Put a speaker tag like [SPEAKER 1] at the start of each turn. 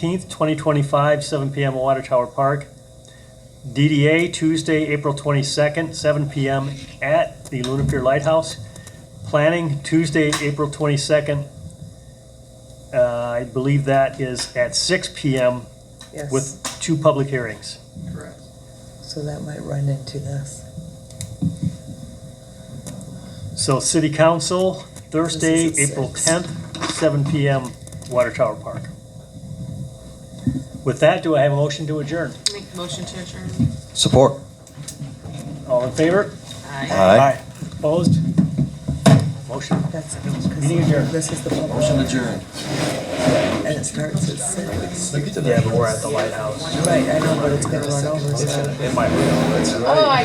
[SPEAKER 1] 18th, 2025, 7 PM, Water Tower Park. DDA Tuesday, April 22nd, 7 PM at the Luna Pier Lighthouse. Planning Tuesday, April 22nd. Uh, I believe that is at 6 PM
[SPEAKER 2] Yes,
[SPEAKER 1] with two public hearings.
[SPEAKER 3] Correct.
[SPEAKER 2] so that might run into this.
[SPEAKER 1] So City Council, Thursday,
[SPEAKER 2] This is at
[SPEAKER 1] April
[SPEAKER 2] six.
[SPEAKER 1] 10th, 7 PM, Water Tower Park. With that, do I have a motion to adjourn?
[SPEAKER 4] Make the motion to adjourn.
[SPEAKER 5] Support.
[SPEAKER 1] All in favor?
[SPEAKER 4] Aye.
[SPEAKER 5] Aye.
[SPEAKER 1] Opposed? Motion.
[SPEAKER 2] That's,
[SPEAKER 1] Meeting adjourned.
[SPEAKER 2] this is the
[SPEAKER 3] Motion
[SPEAKER 2] public,
[SPEAKER 3] adjourned.
[SPEAKER 2] and it starts at six.
[SPEAKER 1] Yeah, but we're at the lighthouse.
[SPEAKER 2] Right, I know, but it's gonna run over, so.
[SPEAKER 4] Oh, I